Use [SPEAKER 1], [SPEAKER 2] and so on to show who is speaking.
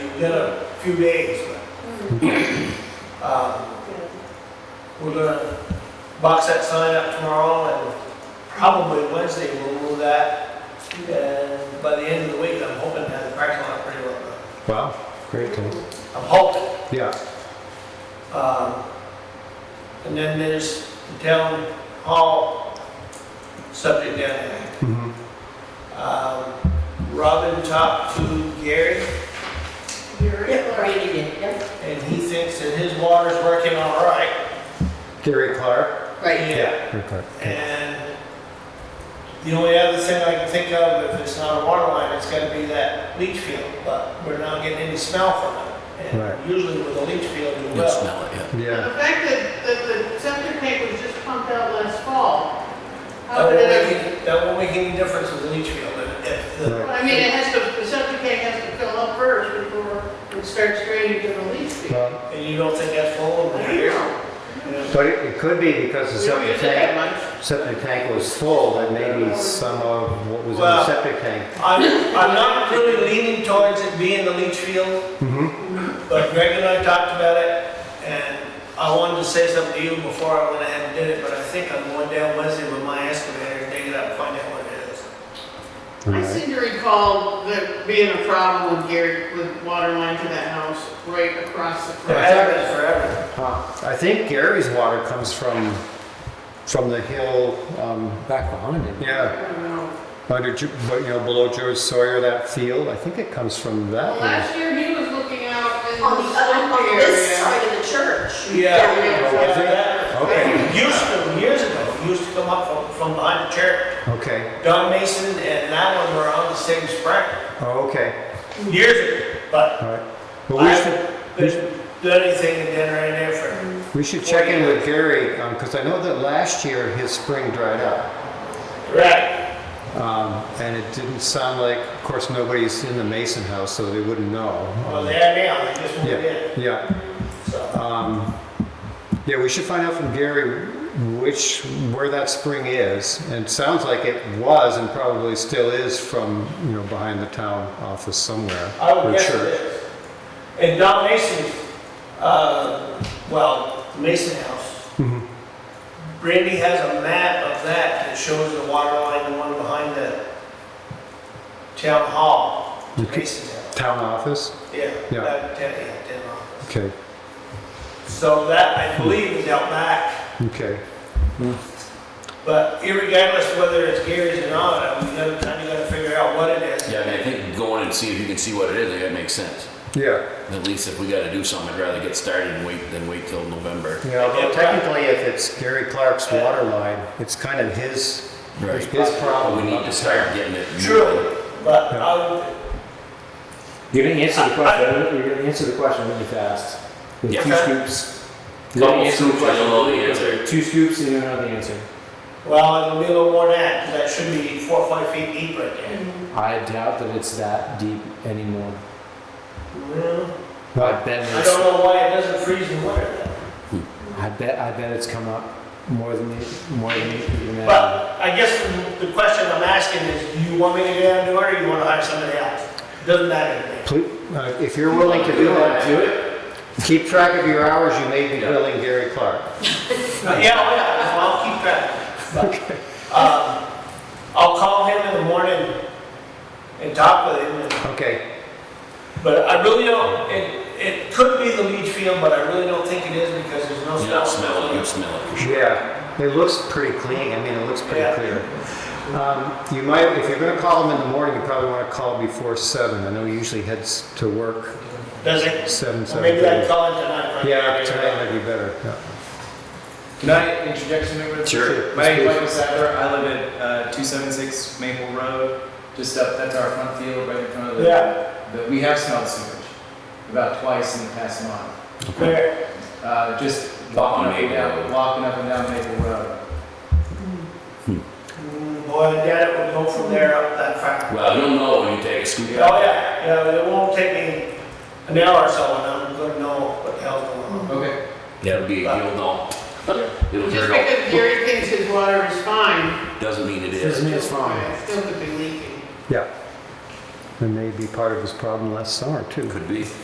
[SPEAKER 1] got a few days, but, uh, we're gonna box that sign up tomorrow and probably Wednesday we'll move that. And by the end of the week, I'm hoping to have the parking lot pretty well done.
[SPEAKER 2] Wow, great, Tim.
[SPEAKER 1] I'm hoping.
[SPEAKER 2] Yeah,
[SPEAKER 1] Um, And then there's the town hall subject down there.
[SPEAKER 2] mhm,
[SPEAKER 1] Um, Robin talked to Gary,
[SPEAKER 3] Yep, Randy did, yep.
[SPEAKER 1] and he thinks that his water's working all right.
[SPEAKER 2] Gary Clark.
[SPEAKER 3] Right.
[SPEAKER 2] Gary Clark.
[SPEAKER 1] And the only other thing I can think of, if it's not a water line, it's gotta be that leach field, but we're not getting any smell from it.
[SPEAKER 2] Right.
[SPEAKER 1] And usually with a leach field, you
[SPEAKER 4] You'll
[SPEAKER 1] will.
[SPEAKER 4] smell it, yeah.
[SPEAKER 2] Yeah,
[SPEAKER 5] The fact that, that the septic tank was just pumped out last fall,
[SPEAKER 1] That
[SPEAKER 6] Oh,
[SPEAKER 5] how
[SPEAKER 1] won't
[SPEAKER 5] would it
[SPEAKER 1] make,
[SPEAKER 5] have?
[SPEAKER 1] any- that won't make any difference with the leach field, if- if the
[SPEAKER 2] Right.
[SPEAKER 5] I mean, it has to, the septic tank has to fill up first before it starts draining to the leach field.
[SPEAKER 2] well,
[SPEAKER 1] And you don't think that's full over here? Yeah.
[SPEAKER 2] but it it could be because the
[SPEAKER 5] We don't
[SPEAKER 2] septic
[SPEAKER 5] use it that
[SPEAKER 2] tank,
[SPEAKER 5] much.
[SPEAKER 2] septic tank was full, that maybe some of what was in the
[SPEAKER 1] Well-
[SPEAKER 2] septic tank.
[SPEAKER 1] I'm, I'm not really leaning towards it being the leach field,
[SPEAKER 2] Mm-hmm,
[SPEAKER 1] but Greg and I talked about it, and I wanted to say something to you before I went ahead and did it, but I think I'm going down Wednesday with my excavator, and dig it up, and find out what it is.
[SPEAKER 5] I seem to recall there being a problem with Gary, with water line to that house right across the
[SPEAKER 1] It
[SPEAKER 5] front.
[SPEAKER 1] has been forever.
[SPEAKER 2] I think Gary's water comes from, from the hill, um,
[SPEAKER 4] Back behind him.
[SPEAKER 5] I
[SPEAKER 2] yeah,
[SPEAKER 5] don't know.
[SPEAKER 2] under, Ju- but, you know, below George Sawyer, that field, I think it comes from
[SPEAKER 5] Well,
[SPEAKER 2] that.
[SPEAKER 5] last year he was looking out in
[SPEAKER 3] On the
[SPEAKER 5] the
[SPEAKER 3] other,
[SPEAKER 5] sump
[SPEAKER 3] on this
[SPEAKER 5] area.
[SPEAKER 3] side of the church.
[SPEAKER 1] Yeah.
[SPEAKER 3] Down
[SPEAKER 2] Was Oh, it?
[SPEAKER 1] Yeah.
[SPEAKER 2] Okay.
[SPEAKER 1] Used to, years ago, it used to come up from, from behind the church.
[SPEAKER 2] hill. Okay,
[SPEAKER 1] Don Mason and that one were on the same spring,
[SPEAKER 2] oh, okay,
[SPEAKER 1] years ago, but
[SPEAKER 2] all right. But we
[SPEAKER 1] I
[SPEAKER 2] should,
[SPEAKER 1] haven't been- done anything in Denver in there for
[SPEAKER 2] we should check in with Gary, um, cause I know that last year his spring dried up.
[SPEAKER 1] Right.
[SPEAKER 2] Um, and it didn't sound like, of course, nobody's in the Mason house, so they wouldn't know.
[SPEAKER 1] Well, they are now, they just moved
[SPEAKER 2] Yeah,
[SPEAKER 1] in,
[SPEAKER 2] yeah.
[SPEAKER 1] so.
[SPEAKER 2] Um, yeah, we should find out from Gary which, where that spring is. And it sounds like it was and probably still is from, you know, behind the town office somewhere.
[SPEAKER 1] I would
[SPEAKER 2] or
[SPEAKER 1] guess it
[SPEAKER 2] church.
[SPEAKER 1] is. And Don Mason's, uh, well, the Mason House,
[SPEAKER 2] Mhm.
[SPEAKER 1] Randy has a map of that that shows the water line, the one behind the town hall, the
[SPEAKER 2] Okay.
[SPEAKER 1] Mason House.
[SPEAKER 2] Town office?
[SPEAKER 1] Yeah,
[SPEAKER 2] Yeah.
[SPEAKER 1] that, that- yeah, town hall.
[SPEAKER 2] Okay,
[SPEAKER 1] So that, I believe, is out back,
[SPEAKER 2] okay.
[SPEAKER 1] but irregardless whether it's Gary's or not, I mean, another time you gotta figure out what it is.
[SPEAKER 4] Yeah, I mean, I think going and see if you can see what it is, I think that makes sense.
[SPEAKER 2] Yeah.
[SPEAKER 4] At least if we gotta do something, I'd rather get started and wait than wait till November.
[SPEAKER 2] Yeah, although technically, if it's Gary Clark's water line, it's kind of his,
[SPEAKER 4] Right.
[SPEAKER 2] his problem.
[SPEAKER 4] We need to start getting it.
[SPEAKER 1] True, but I would,
[SPEAKER 6] You didn't answer the question, you didn't answer the question really fast. With
[SPEAKER 4] Yeah.
[SPEAKER 6] two scoops. You
[SPEAKER 4] Couple
[SPEAKER 6] didn't answer the
[SPEAKER 4] scoops, I don't know the
[SPEAKER 6] question.
[SPEAKER 4] answer.
[SPEAKER 6] Two scoops and you don't know the answer.
[SPEAKER 1] Well, it'll be a little more than that, 'cause that should be four or five feet deep right there.
[SPEAKER 6] I doubt that it's that deep anymore. I bet
[SPEAKER 1] I don't
[SPEAKER 6] it's,
[SPEAKER 1] know why it doesn't freeze in winter.
[SPEAKER 6] I bet, I bet it's come up more than, you- more than you can imagine.
[SPEAKER 1] But I guess the- the question I'm asking is, do you want me to get out and do it, or you wanna hire somebody else? Doesn't matter to me.
[SPEAKER 2] Please, uh, if you're willing to do that, do it. Keep track of your hours you may be
[SPEAKER 4] Yeah.
[SPEAKER 2] billing Gary Clark.
[SPEAKER 1] But Yeah, oh yeah, well, I'll keep track. But, um, I'll call him in the morning and talk with him. and-
[SPEAKER 2] Okay,
[SPEAKER 1] But I really don't, it, it could be the leach field, but I really don't think it is because there's no
[SPEAKER 4] You
[SPEAKER 1] smell.
[SPEAKER 4] don't smell it, you smell it for sure.
[SPEAKER 2] yeah, it looks pretty clean, I mean, it looks pretty
[SPEAKER 1] Yeah.
[SPEAKER 2] clear. Um, You might, if you're gonna call him in the morning, you probably wanna call before seven, I know he usually heads to work
[SPEAKER 1] Does it?
[SPEAKER 2] seven,
[SPEAKER 1] Well, Maybe I can
[SPEAKER 2] 7:30.
[SPEAKER 1] call him tonight. right?
[SPEAKER 2] Yeah, tonight might be better, yeah.
[SPEAKER 7] Can I interject something real quick?
[SPEAKER 4] Sure.
[SPEAKER 7] My name's Michael Sadler. I live at uh, 276 Maple Road, just up, that's our front field, right in front of the.
[SPEAKER 1] Yeah.
[SPEAKER 7] But we have smelled sewage about twice in the past month.
[SPEAKER 1] Where-
[SPEAKER 7] Uh, Just walking up and
[SPEAKER 4] Maple
[SPEAKER 7] down,
[SPEAKER 4] Road.
[SPEAKER 7] walking up and down Maple Road.
[SPEAKER 1] Mm, Boy, Dad, it would go from there up that far.
[SPEAKER 4] Well, you'll know when you take a scoop
[SPEAKER 1] Oh,
[SPEAKER 4] out.
[SPEAKER 1] yeah, yeah, it won't take me an hour or so, and I'm gonna know what the hell's going on.
[SPEAKER 7] Okay.
[SPEAKER 4] That'll be, you'll know. It'll
[SPEAKER 5] Just
[SPEAKER 4] turn out,
[SPEAKER 5] because Gary thinks his water is fine,
[SPEAKER 4] doesn't mean it
[SPEAKER 6] Doesn't
[SPEAKER 4] is.
[SPEAKER 6] mean it's fine.
[SPEAKER 5] it still could be leaking.
[SPEAKER 2] Yeah. It may be part of his problem last summer, too.
[SPEAKER 4] Could be.